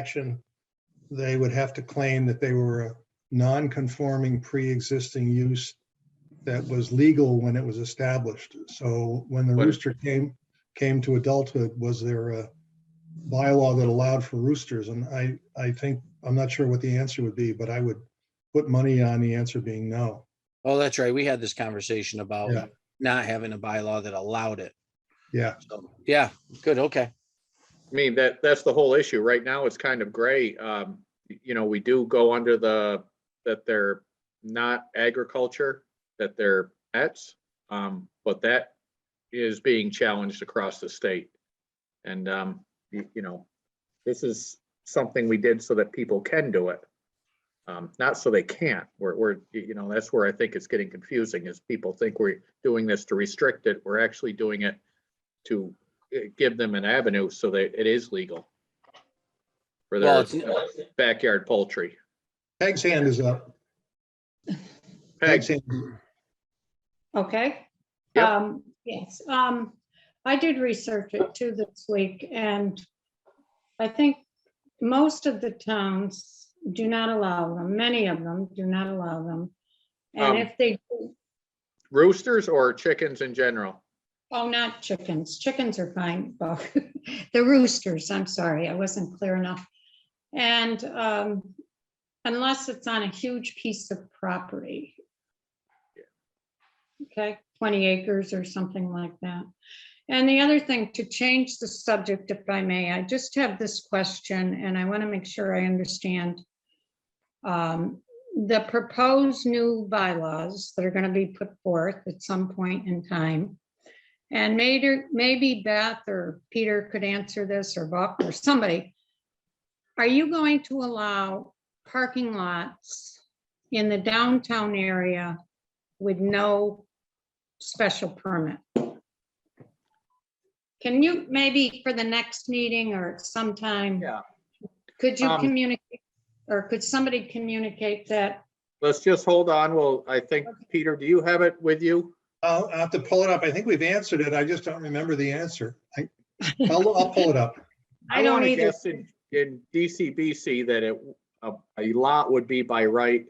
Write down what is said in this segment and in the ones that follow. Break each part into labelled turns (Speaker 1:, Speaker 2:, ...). Speaker 1: action, they would have to claim that they were a non-conforming pre-existing use that was legal when it was established. So when the
Speaker 2: What-
Speaker 1: rooster came, came to adulthood, was there a bylaw that allowed for roosters? And I, I think, I'm not sure what the answer would be, but I would put money on the answer being no.
Speaker 3: Oh, that's right. We had this conversation about
Speaker 1: Yeah.
Speaker 3: not having a bylaw that allowed it.
Speaker 1: Yeah,
Speaker 3: So, yeah, good, okay.
Speaker 2: I mean, that, that's the whole issue. Right now, it's kind of gray. Um, y- you know, we do go under the, that they're not agriculture, that they're pets. Um, but that is being challenged across the state. And, um, y- you, know, this is something we did so that people can do it. Um, not so they can't. We're, we're, y- you know, that's where I think it's getting confusing is people think we're doing this to restrict it. We're actually doing it to eh, give them an avenue so that it is legal. For
Speaker 3: Well,
Speaker 2: their
Speaker 3: it's-
Speaker 2: backyard poultry.
Speaker 1: Peg's hand is up. Peg's
Speaker 2: Peg,
Speaker 1: hand.
Speaker 4: Okay.
Speaker 2: Yep.
Speaker 4: Um, yes, um, I did research it too this week and I think most of the towns do not allow them, many of them do not allow them.
Speaker 2: Um,
Speaker 4: And if they, do-
Speaker 2: roosters or chickens in general?
Speaker 4: oh, not chickens, chickens are fine, but the roosters, I'm sorry, I wasn't clear enough. And, um, unless it's on a huge piece of property. Okay, 20 acres or something like that. And the other thing, to change the subject, if I may, I just have this question, and I want to make sure I understand. Um, The proposed new bylaws that are going to be put forth at some point in time. And maybe, maybe Beth or Peter could answer this, or Buck, or somebody. Are you going to allow parking lots in the downtown area with no special permit. Can you, maybe for the next meeting or sometime?
Speaker 2: Yeah.
Speaker 4: Could you
Speaker 2: Um,
Speaker 4: communicate, or could somebody communicate that?
Speaker 2: Let's just hold on. Well, I think, Peter, do you have it with you?
Speaker 1: I'll I'll have to pull it up. I think we've answered it. I just don't remember the answer. I, I'll, I'll pull it up.
Speaker 4: I don't
Speaker 2: wanna
Speaker 4: either.
Speaker 2: guess In in DCBC that it, a, a lot would be by right,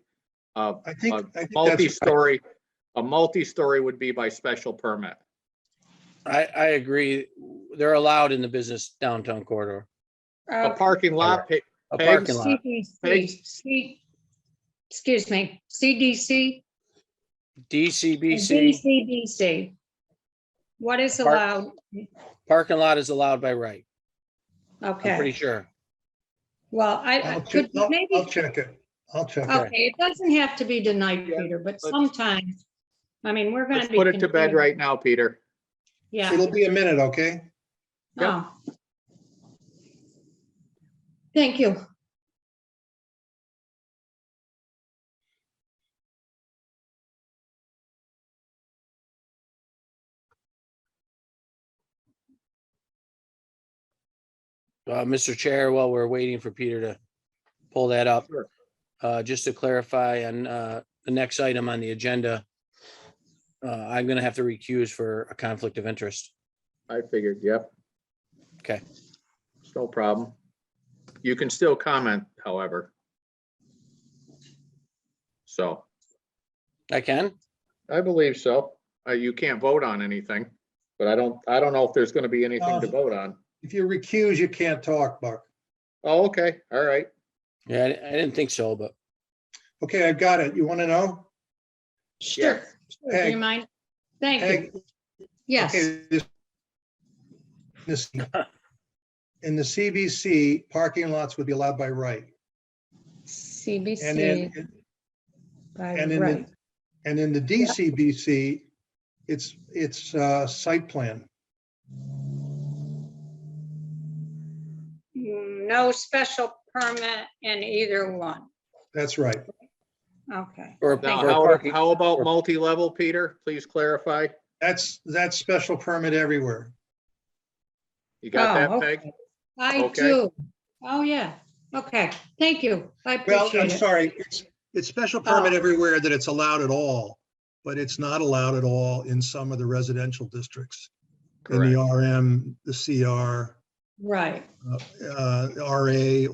Speaker 2: a
Speaker 1: I think,
Speaker 2: Uh,
Speaker 1: I think that's, right.
Speaker 2: multi-story, a multi-story would be by special permit.
Speaker 3: I, I agree. They're allowed in the business downtown corridor.
Speaker 2: A
Speaker 4: Uh,
Speaker 2: parking lot, pa-
Speaker 3: A
Speaker 2: Peg,
Speaker 3: parking lot,
Speaker 4: CDC, C- Excuse me, CDC?
Speaker 3: DCBC,
Speaker 4: DCBC. What is
Speaker 3: Park-
Speaker 4: allowed?
Speaker 3: parking lot is allowed by right. I'm pretty
Speaker 4: Okay,
Speaker 3: sure.
Speaker 4: well, I, I
Speaker 1: I'll check,
Speaker 4: could,
Speaker 1: I'll,
Speaker 4: maybe. Oh,
Speaker 1: I'll check it. I'll check it.
Speaker 3: Okay.
Speaker 4: Okay, it doesn't have to be tonight,
Speaker 2: Yeah,
Speaker 4: Peter, but
Speaker 2: let's-
Speaker 4: sometimes, I mean, we're gonna
Speaker 2: let's
Speaker 4: be.
Speaker 2: put it to bed
Speaker 4: confused.
Speaker 2: right now, Peter.
Speaker 4: Yeah.
Speaker 1: It'll be a minute, okay?
Speaker 4: no. Thank you.
Speaker 3: Uh, Mr. Chair, while we're waiting for Peter to pull that up,
Speaker 2: Sure.
Speaker 3: uh, just to clarify on, uh, the next item on the agenda, uh, I'm gonna have to recuse for a conflict of interest.
Speaker 2: I figured, yep.
Speaker 3: Okay.
Speaker 2: It's no problem. You can still comment, however. So,
Speaker 3: I can?
Speaker 2: I believe so. Uh, you can't vote on anything, but I don't, I don't know if there's gonna be anything to
Speaker 1: Uh.
Speaker 2: vote on.
Speaker 1: If you recuse, you can't talk, Buck.
Speaker 2: Oh, okay, all right.
Speaker 3: Yeah, I I didn't think so, but
Speaker 1: Okay, I've got it. You want to know?
Speaker 4: Sure. Sure, Do
Speaker 1: Peg.
Speaker 4: you mind? Thank you.
Speaker 1: Peg,
Speaker 4: Yes,
Speaker 1: okay, this- This, in the CBC, parking lots would be allowed by right. And
Speaker 4: CBC.
Speaker 1: in,
Speaker 4: by
Speaker 1: and in the-
Speaker 4: right.
Speaker 1: and in the DCBC, it's, it's, uh, site plan.
Speaker 4: Mm, No special permit in either one.
Speaker 1: That's right.
Speaker 4: Okay,
Speaker 3: or.
Speaker 2: Now,
Speaker 3: or
Speaker 2: how,
Speaker 3: parking-
Speaker 2: how about
Speaker 3: or-
Speaker 2: multi-level, Peter? Please clarify.
Speaker 1: That's, that's special permit everywhere.
Speaker 2: You got
Speaker 4: Oh,
Speaker 2: that, Peg?
Speaker 4: I
Speaker 2: Okay.
Speaker 4: do. Oh, yeah. Okay, thank you. I
Speaker 1: Well, I'm
Speaker 4: appreciate it.
Speaker 1: sorry, it's, it's special permit
Speaker 4: Oh.
Speaker 1: everywhere that it's allowed at all, but it's not allowed at all in some of the residential districts. In the
Speaker 2: Correct.
Speaker 1: RM, the CR,
Speaker 4: Right.
Speaker 1: uh, RA,